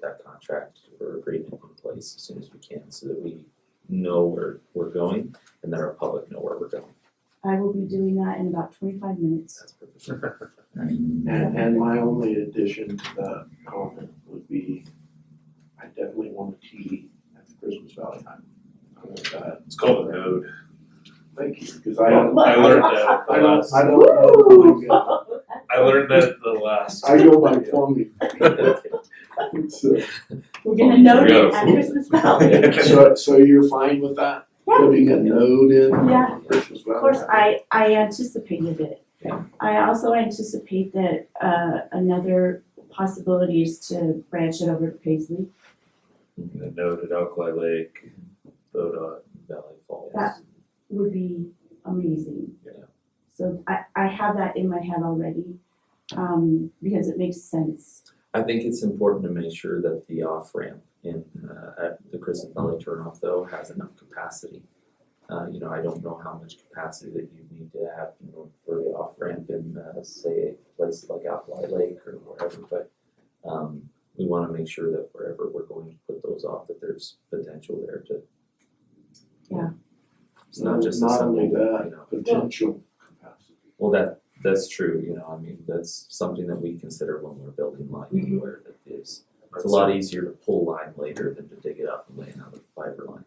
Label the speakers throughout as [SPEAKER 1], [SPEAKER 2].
[SPEAKER 1] that contract or agreement in place as soon as we can so that we know where we're going and that our public know where we're going.
[SPEAKER 2] I will be doing that in about twenty-five minutes.
[SPEAKER 1] That's perfect.
[SPEAKER 3] And, and my only addition to that comment would be, I definitely want a TV at the Christmas Valley time. I want that.
[SPEAKER 4] It's called a node.
[SPEAKER 3] Thank you, because I don't,
[SPEAKER 4] I learned that
[SPEAKER 3] I
[SPEAKER 4] the
[SPEAKER 3] don't, I
[SPEAKER 4] last,
[SPEAKER 3] don't know. if I
[SPEAKER 4] I learned that the last.
[SPEAKER 3] get- I go by plumbing. So,
[SPEAKER 2] We're gonna note
[SPEAKER 4] Yeah.
[SPEAKER 2] it at Christmas Valley.
[SPEAKER 3] so- so you're fine with that?
[SPEAKER 2] Yeah.
[SPEAKER 3] Putting a node in
[SPEAKER 2] Yeah.
[SPEAKER 3] Christmas Valley?
[SPEAKER 2] Of course, I, I anticipated it.
[SPEAKER 1] Yeah.
[SPEAKER 2] I also anticipate that, uh, another possibility is to branch it over to Paisley.
[SPEAKER 4] A node at Alkali Lake, Bodot.
[SPEAKER 1] Valley Falls.
[SPEAKER 2] That would be amazing.
[SPEAKER 1] Yeah.
[SPEAKER 2] So I, I have that in my head already, um, because it makes sense.
[SPEAKER 1] I think it's important to make sure that the off ramp in uh, at the Crescent Valley turnoff though has enough capacity. Uh, you know, I don't know how much capacity that you need to have, you know, for the off ramp in uh, say a place like Alkali Lake or wherever, but um, we want to make sure that wherever we're going to put those off, that there's potential there to.
[SPEAKER 2] Yeah.
[SPEAKER 1] It's not just a
[SPEAKER 3] Not only
[SPEAKER 1] simple,
[SPEAKER 3] that,
[SPEAKER 1] you know.
[SPEAKER 3] potential capacity.
[SPEAKER 1] Well, that, that's true, you know, I mean, that's something that we consider when we're building line
[SPEAKER 2] Mhm.
[SPEAKER 1] anywhere that is. It's a lot easier to pull line later than to dig it up and lay another fiber line.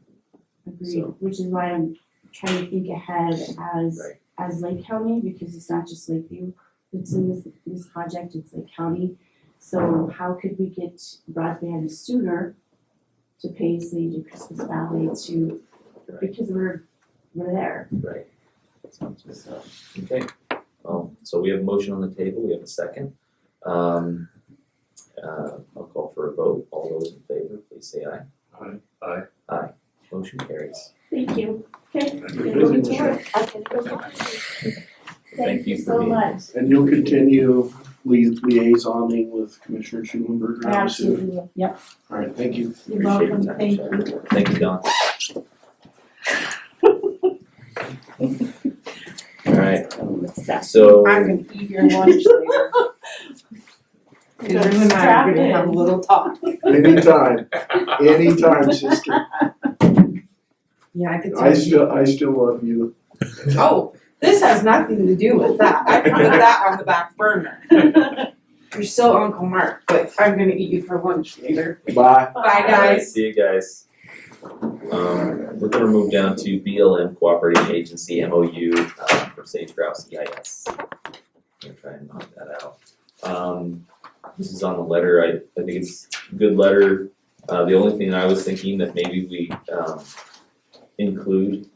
[SPEAKER 2] Agreed,
[SPEAKER 1] So-
[SPEAKER 2] which is why I'm trying to think ahead as,
[SPEAKER 1] Right.
[SPEAKER 2] as Lake County, because it's not just Lakeview. It's in this, this project, it's Lake County. So how could we get broadband sooner to Paisley, to Christmas Valley, to,
[SPEAKER 1] Right.
[SPEAKER 2] because we're, we're there.
[SPEAKER 1] Right. Okay, well, so we have a motion on the table, we have a second. Um, uh, I'll call for a vote, all those in favor, please say aye.
[SPEAKER 3] Aye.
[SPEAKER 4] Aye.
[SPEAKER 1] Aye, motion carries.
[SPEAKER 2] Thank you. Okay.
[SPEAKER 3] Thank
[SPEAKER 2] I'm
[SPEAKER 3] you.
[SPEAKER 2] gonna go to work. I'm gonna go to work. Thank you so
[SPEAKER 1] being here.
[SPEAKER 2] much.
[SPEAKER 3] And you'll continue lia- liaisoning with Commissioner Schulenberger?
[SPEAKER 2] I absolutely, will. yep,
[SPEAKER 3] All right, thank you.
[SPEAKER 2] you're
[SPEAKER 1] Appreciate your
[SPEAKER 2] welcome,
[SPEAKER 1] time,
[SPEAKER 2] thank
[SPEAKER 1] Sharon.
[SPEAKER 2] you.
[SPEAKER 1] Thank you, Don. All right, so.
[SPEAKER 5] I'm gonna eat your lunch later. And you and I are gonna have a little talk.
[SPEAKER 3] Anytime, anytime, sister.
[SPEAKER 5] Yeah, I could
[SPEAKER 3] I
[SPEAKER 5] tell you.
[SPEAKER 3] still, I still love you.
[SPEAKER 5] Oh, this has nothing to do with that. I put that on the back burner. You're still Uncle Mark, but I'm gonna eat you for lunch later.
[SPEAKER 3] Bye.
[SPEAKER 5] Bye, guys.
[SPEAKER 1] See you guys. Um, we're gonna move down to BLM Cooperating Agency MOU uh, for Sage Grouse EIS. I'm gonna try and knock that out. Um, this is on the letter, I, I think it's a good letter. Uh, the only thing I was thinking that maybe we, um, include,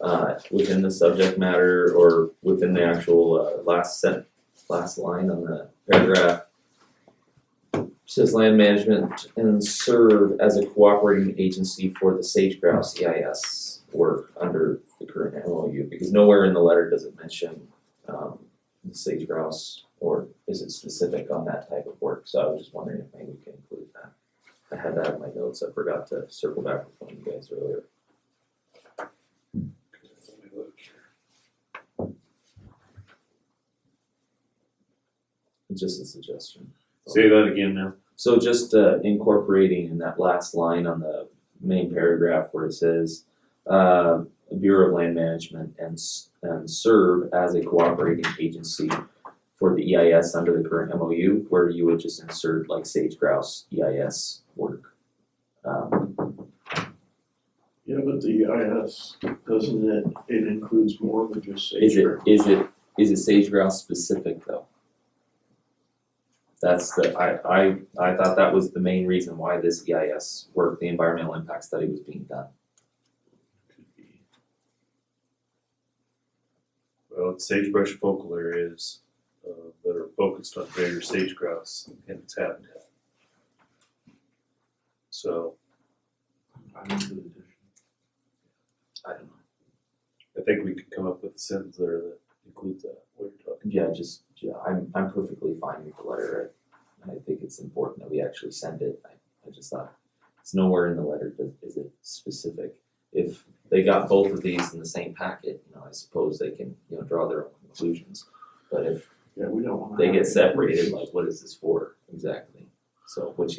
[SPEAKER 1] uh, within the subject matter or within the actual, uh, last sent, last line on the paragraph, says land management and serve as a cooperating agency for the sage grouse EIS work under the current MOU, because nowhere in the letter does it mention um the sage grouse or is it specific on that type of work, so I was just wondering if maybe we can include that. I had that in my notes, I forgot to circle back with one of you guys earlier. It's just a suggestion.
[SPEAKER 4] Say that again now.
[SPEAKER 1] So just uh, incorporating in that last line on the main paragraph where it says, uh, Bureau of Land Management and, s- and serve as a cooperating agency for the EIS under the current MOU, where you would just insert like sage grouse EIS work. Um,
[SPEAKER 3] Yeah, but the EIS, doesn't it, it includes more than just
[SPEAKER 1] is it,
[SPEAKER 3] sagebrush.
[SPEAKER 1] is it, is it sage grouse specific though? That's the, I, I, I thought that was the main reason why this EIS work, the environmental impact study was being done.
[SPEAKER 4] Well, it's sagebrush focal areas uh, that are focused on greater sage grouse and its habitat. So
[SPEAKER 3] I don't know.
[SPEAKER 1] I don't know.
[SPEAKER 4] I think we could come up with a sentence there that includes that, what you're talking
[SPEAKER 1] Yeah, just, yeah, I'm, I'm perfectly fine with the letter. I, I think it's important that we actually send it. I, I just thought, it's nowhere in the letter, but is it specific? If they got both of these in the same packet, you know, I suppose they can, you know, draw their own conclusions. But if
[SPEAKER 3] Yeah, we don't wanna.
[SPEAKER 1] they
[SPEAKER 3] have
[SPEAKER 1] get
[SPEAKER 3] it.
[SPEAKER 1] separated, like, what is this for exactly? So, which